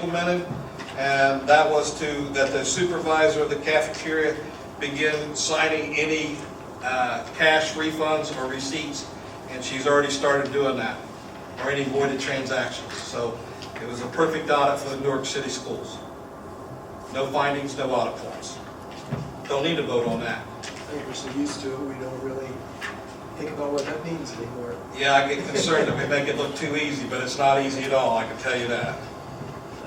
implemented, and that was to, that the supervisor of the cafeteria begin signing any uh, cash refunds or receipts, and she's already started doing that, or any voided transactions. So it was a perfect audit for the Newark City Schools. No findings, no audit points. Don't need to vote on that. I think we're so used to it, we don't really think about what that means anymore. Yeah, I get concerned that we make it look too easy, but it's not easy at all, I can tell you that.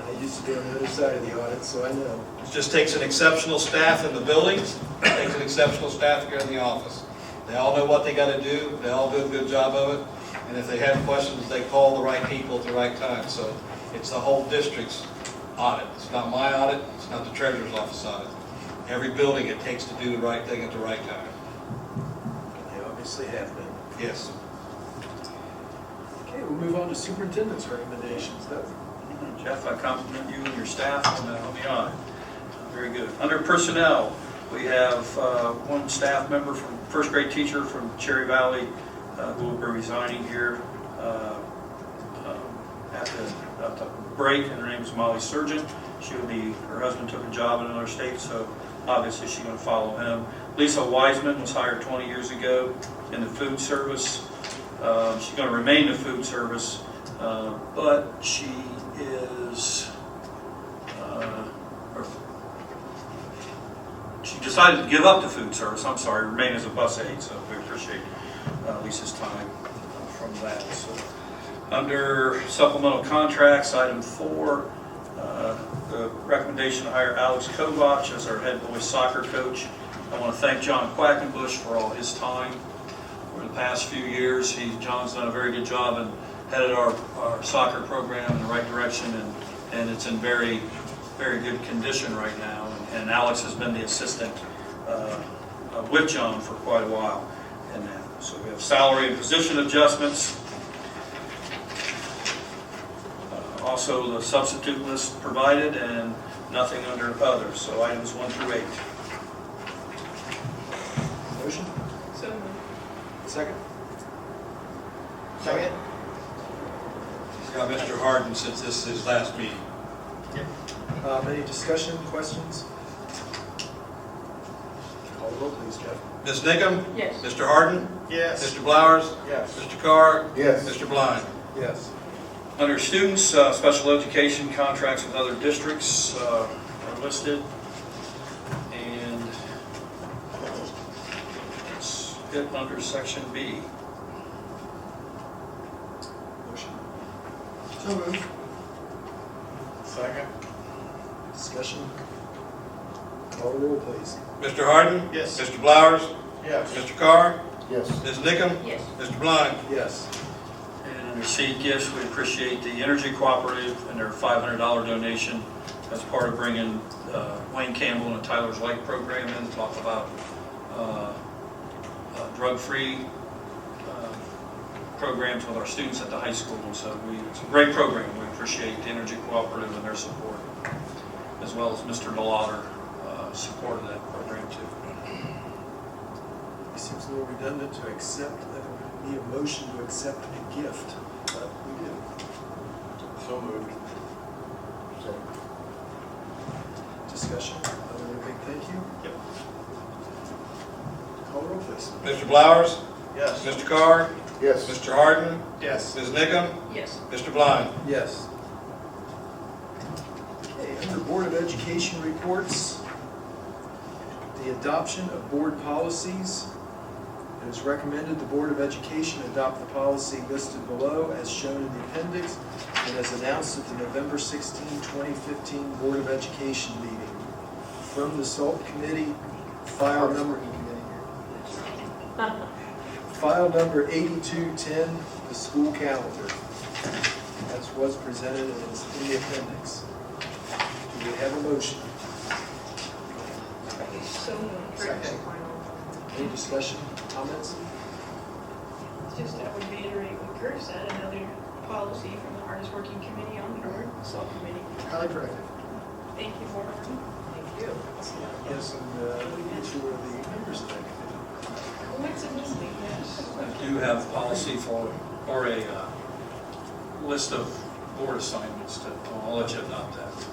I used to be on the other side of the audit, so I know. It just takes an exceptional staff in the buildings, it takes an exceptional staff here in the office. They all know what they gotta do, they all do a good job of it, and if they have questions, they call the right people at the right time. So it's the whole district's audit. It's not my audit, it's not the treasurer's office audit. Every building, it takes to do the right thing at the right time. They obviously have been. Yes. Okay, we'll move on to superintendent's recommendations. That- Jeff, I compliment you and your staff on the, on the audit. Very good. Under personnel, we have uh, one staff member from, first grade teacher from Cherry Valley uh, who will be resigning here uh, um, at the, at the break, and her name is Molly Surgeon. She will be, her husband took a job in another state, so obviously she's going to follow him. Lisa Wiseman was hired 20 years ago in the food service. Uh, She's going to remain in food service, uh, but she is, uh, or- she decided to give up the food service, I'm sorry, remain as a bus aide, so we appreciate uh, Lisa's time uh, from that. So, Under supplemental contracts, item four, uh, the recommendation to hire Alex Kovach as our head boys soccer coach. I want to thank John Quackenbush for all his time over the past few years. He, John's done a very good job and headed our, our soccer program in the right direction, and, and it's in very, very good condition right now. And Alex has been the assistant uh, uh, with John for quite a while. And uh, so we have salary and position adjustments. Uh, Also, the substitute list provided and nothing under other, so items one through eight. Motion? So moved. Second? Second. He's got Mr. Harden since this is his last meeting. Um, Any discussion, questions? Call the roll, please, Jeff. Ms. Nickam? Yes. Mr. Harden? Yes. Mr. Blowers? Yes. Mr. Carr? Yes. Mr. Blind? Yes. Under students, uh, special education contracts with other districts uh, are listed, and it's it under section B. Motion? So moved. Second. Discussion? Call the roll, please. Mr. Harden? Yes. Mr. Blowers? Yes. Mr. Carr? Yes. Ms. Nickam? Yes. Mr. Blind? Yes. And under C gifts, we appreciate the Energy Cooperative and their $500 donation as part of bringing uh, Wayne Campbell and Tyler's Light program in to talk about uh, uh, drug-free uh, programs with our students at the high school. And so we, it's a great program. We appreciate the Energy Cooperative and their support, as well as Mr. Delauder, uh support of that program too. It seems a little redundant to accept, that we need a motion to accept a gift, but we do. So moved. Discussion, other than a big thank you? Yep. Call roll, please. Mr. Blowers? Yes. Mr. Carr? Yes. Mr. Harden? Yes. Ms. Nickam? Yes. Mr. Blind? Yes. Okay, under Board of Education reports, the adoption of board policies. It is recommended the Board of Education adopt the policy listed below as shown in the appendix and as announced at the November 16, 2015 Board of Education meeting. From the SALT Committee, file number File number 8210, the school calendar. That's what's presented and it's in the appendix. Do we have a motion? So moved. Second. Any discussion, comments? It's Just I would reiterate what Kurt said, another policy from the hardest working committee on the board, subcommittee. Highly corrected. Thank you, Warren. Thank you. Yes, and uh, two of the members of that committee. What's in this meeting? Yes. I do have policy for, or a uh, list of board assignments to, I'll let you adopt that.